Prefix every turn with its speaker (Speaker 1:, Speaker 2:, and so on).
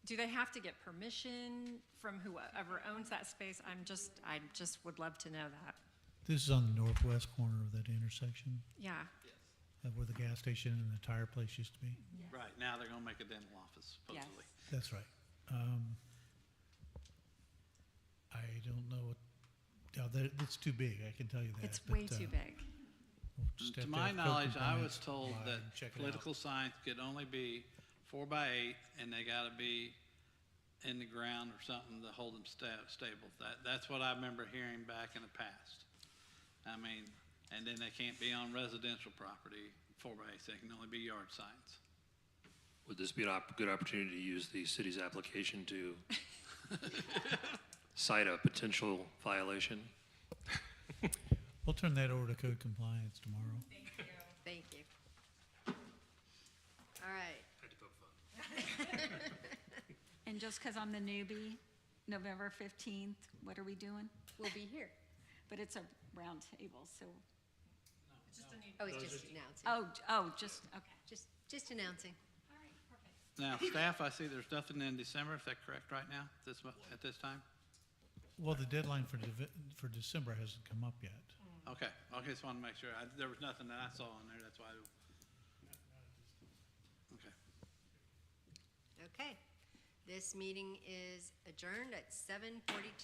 Speaker 1: do they have to get permission from whoever owns that space? I'm just, I just would love to know that.
Speaker 2: This is on the northwest corner of that intersection,
Speaker 1: Yeah,
Speaker 2: uh, where the gas station and the tire place used to be.
Speaker 3: Right, now they're gonna make a dental office
Speaker 1: yes.
Speaker 3: supposedly.
Speaker 2: That's right. Um, I don't know what, yeah, that, it's too big, I can tell you that.
Speaker 1: It's
Speaker 2: but,
Speaker 1: way
Speaker 2: uh,
Speaker 1: too big.
Speaker 2: we'll just have
Speaker 3: To
Speaker 2: have
Speaker 3: my
Speaker 2: Coke
Speaker 3: knowledge,
Speaker 2: and
Speaker 3: I
Speaker 2: Finance
Speaker 3: was told
Speaker 2: come by
Speaker 3: that
Speaker 2: and check it out.
Speaker 3: political science could only be four by eight and they gotta be in the ground or something to hold them sta- stable. That, that's what I remember hearing back in the past. I mean, and then they can't be on residential property, four by eights, they can only be yard signs.
Speaker 4: Would this be a good opportunity to use the city's application to cite a potential violation?
Speaker 2: We'll turn that over to code compliance tomorrow.
Speaker 5: Thank you. All right,
Speaker 6: And just because I'm the newbie, November 15th, what are we doing?
Speaker 5: we'll be here.
Speaker 6: But it's a round table, so,
Speaker 5: Oh, it's just announcing.
Speaker 6: oh, j- oh, just, okay.
Speaker 5: Just, just announcing.
Speaker 3: Now, staff, I see there's nothing in December, is that correct right now, this, mo- at this time?
Speaker 2: Well, the deadline for, Deve- for December hasn't come up yet.
Speaker 3: Okay, okay, just wanted to make sure. I, there was nothing that I saw on there, that's why. I- Okay.
Speaker 5: Okay. This meeting is adjourned at seven forty-two.